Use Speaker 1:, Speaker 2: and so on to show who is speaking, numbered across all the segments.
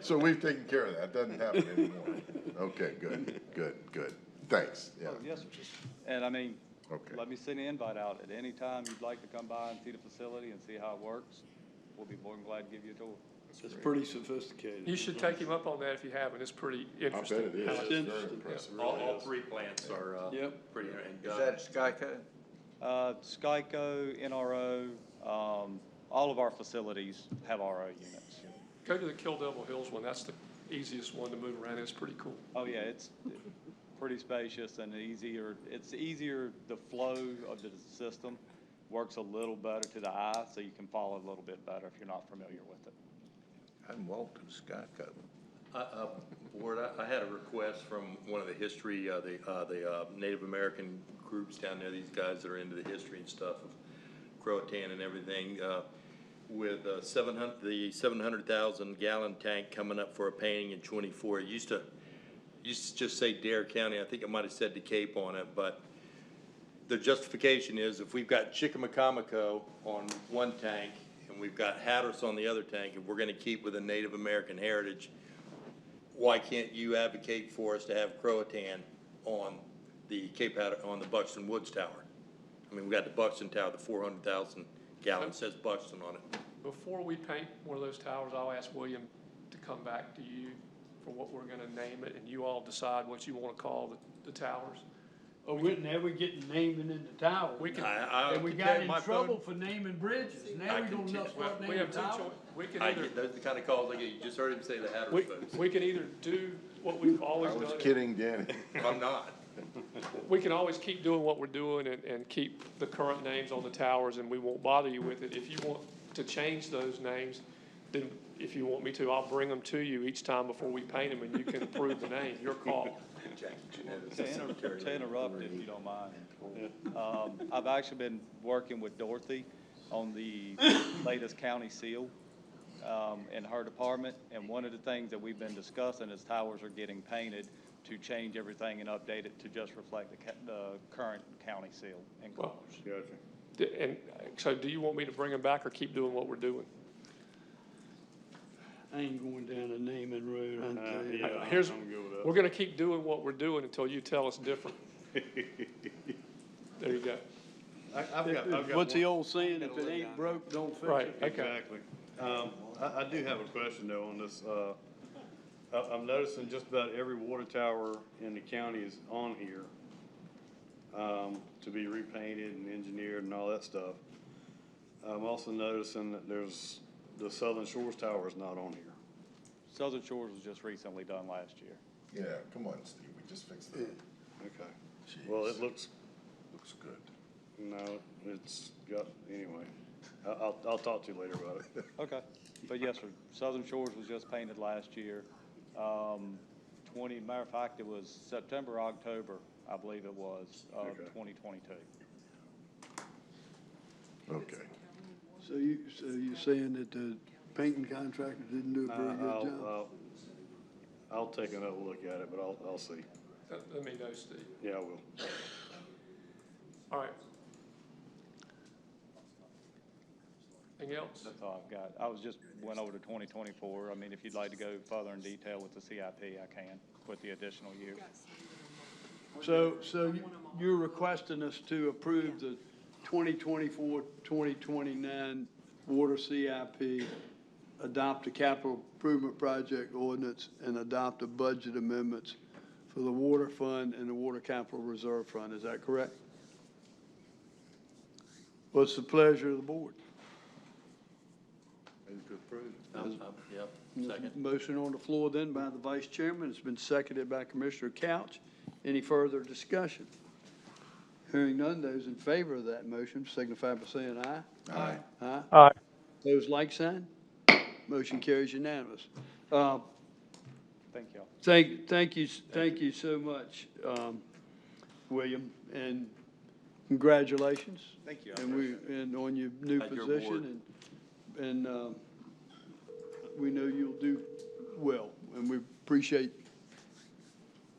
Speaker 1: So we've taken care of that, doesn't happen anymore. Okay, good, good, good, thanks, yeah.
Speaker 2: Oh, yes, sir. And I mean,
Speaker 1: Okay.
Speaker 2: let me send an invite out. At any time you'd like to come by and see the facility and see how it works, we'll be more than glad to give you a tour.
Speaker 3: It's pretty sophisticated.
Speaker 4: You should take him up on that if you haven't, it's pretty
Speaker 1: I bet
Speaker 4: interesting.
Speaker 1: it is,
Speaker 3: It's
Speaker 1: it's very
Speaker 3: interesting.
Speaker 1: impressive.
Speaker 5: All, all three plants are, uh,
Speaker 3: Yep.
Speaker 5: pretty, and,
Speaker 6: Is
Speaker 5: uh,
Speaker 6: that Skyco?
Speaker 2: Uh, Skyco, NRO, um, all of our facilities have RO units.
Speaker 4: Go to the Kill Devil Hills one, that's the easiest one to move around, it's pretty cool.
Speaker 2: Oh, yeah, it's pretty spacious and easier, it's easier, the flow of the system works a little better to the eye, so you can follow a little bit better if you're not familiar with it.
Speaker 6: I'm Walton Skyco.
Speaker 5: I- uh, Board, I- I had a request from one of the history, uh, the, uh, the uh, Native American groups down there, these guys that are into the history and stuff of Croatan and everything, uh, with uh, seven hundred, the seven hundred thousand gallon tank coming up for a painting in twenty-four. It used to, used to just say Dare County, I think it might have said DeKalb on it, but the justification is if we've got Chickamacomico on one tank and we've got Hatteras on the other tank, if we're gonna keep with a Native American heritage, why can't you advocate for us to have Croatan on the Cape Hatter, on the Buxton Woods Tower? I mean, we got the Buxton Tower, the four hundred thousand gallon, says Buxton on it.
Speaker 4: Before we paint one of those towers, I'll ask William to come back to you for what we're gonna name it, and you all decide what you wanna call the, the towers.
Speaker 3: Oh, we're never getting naming in the tower.
Speaker 4: We can,
Speaker 5: I, I
Speaker 3: And we
Speaker 5: can
Speaker 3: got
Speaker 5: tell
Speaker 3: in
Speaker 5: my phone-
Speaker 3: trouble for naming bridges.
Speaker 5: I
Speaker 3: Now we
Speaker 5: can
Speaker 3: don't
Speaker 5: tell-
Speaker 3: know
Speaker 4: well,
Speaker 3: what
Speaker 4: we
Speaker 3: naming
Speaker 4: have two
Speaker 3: towers.
Speaker 4: choices, we can
Speaker 5: I
Speaker 4: either,
Speaker 5: get, those are the kind of calls I get, you just heard him say the Hatteras
Speaker 4: we,
Speaker 5: folks,
Speaker 4: we can either do what we've
Speaker 1: I
Speaker 4: always done.
Speaker 1: was kidding, Danny.
Speaker 5: I'm not.
Speaker 4: We can always keep doing what we're doing and, and keep the current names on the towers, and we won't bother you with it. If you want to change those names, then if you want me to, I'll bring them to you each time before we paint them, and you can approve the name, your call.
Speaker 5: Jackie Janetta's
Speaker 2: To
Speaker 5: the
Speaker 2: inter-
Speaker 5: secretary.
Speaker 2: to interrupt, if you don't mind, um, I've actually been working with Dorothy on the latest county seal um, in her department, and one of the things that we've been discussing is towers are getting painted to change everything and update it to just reflect the, ca- the current county seal and colors.
Speaker 4: Well, d- And uh, so do you want me to bring them back or keep doing what we're doing?
Speaker 3: I ain't going down a naming road, I tell you.
Speaker 4: Uh, Here's, we're gonna keep doing what we're doing until you tell us different. There you go.
Speaker 7: I've got, I've got.
Speaker 3: What's the
Speaker 7: one-
Speaker 3: old saying, if it ain't broke, don't fix it?
Speaker 4: Right, okay.
Speaker 7: Exactly. Um, I, I do have a question though on this. Uh, I, I'm noticing just about every water tower in the county is on here, um, to be repainted and engineered and all that stuff. I'm also noticing that there's, the Southern Shores Tower is not on here.
Speaker 2: Southern Shores was just recently done last year.
Speaker 1: Yeah, come on, Steve, we just fixed that.
Speaker 7: Okay. Well,
Speaker 1: Jeez.
Speaker 7: it looks,
Speaker 1: Looks good.
Speaker 7: no, it's got, anyway, I, I'll, I'll talk to you later about it.
Speaker 2: Okay, but yes, sir, Southern Shores was just painted last year. Um, twenty, matter of fact, it was September, October, I believe it was, of
Speaker 7: Okay.
Speaker 2: twenty twenty-two.
Speaker 1: Okay,
Speaker 8: So you, so you're saying that the painting contractor didn't do a
Speaker 7: Uh,
Speaker 8: very good
Speaker 7: I'll,
Speaker 8: job?
Speaker 7: I'll, I'll take another look at it, but I'll, I'll see.
Speaker 4: Uh, Let- Let me know, Steve.
Speaker 7: Yeah, I will.
Speaker 4: All right. Anything else?
Speaker 2: That's all I've got. I was just, went over to twenty twenty-four. I mean, if you'd like to go further in detail with the CIP, I can, with the additional year.
Speaker 3: So, so you- you're requesting us to approve the 2024, 2029 water CIP, adopt a capital improvement project ordinance, and adopt the budget amendments for the water fund and the water capital reserve fund, is that correct? What's the pleasure of the board?
Speaker 5: Yep, second.
Speaker 3: Motion on the floor then by the vice chairman, it's been seconded by Commissioner Couch. Any further discussion? Hearing none, those in favor of that motion signify by saying aye. Aye. Aye.
Speaker 4: Aye.
Speaker 3: Those like sign? Motion carries unanimous. Uh,
Speaker 2: Thank y'all.
Speaker 3: Thank, thank you, thank you so much, um, William, and congratulations.
Speaker 5: Thank you. I
Speaker 3: And we, and on your new
Speaker 5: At your
Speaker 3: position, and, and, um, we know you'll do well, and we appreciate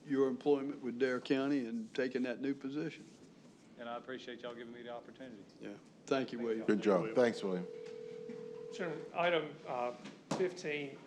Speaker 3: your employment with Dare County and taking that new position.
Speaker 2: And I appreciate y'all giving me the opportunity.
Speaker 3: Yeah, thank you, William.
Speaker 1: good job, thanks, William.
Speaker 4: Chairman, item uh, 15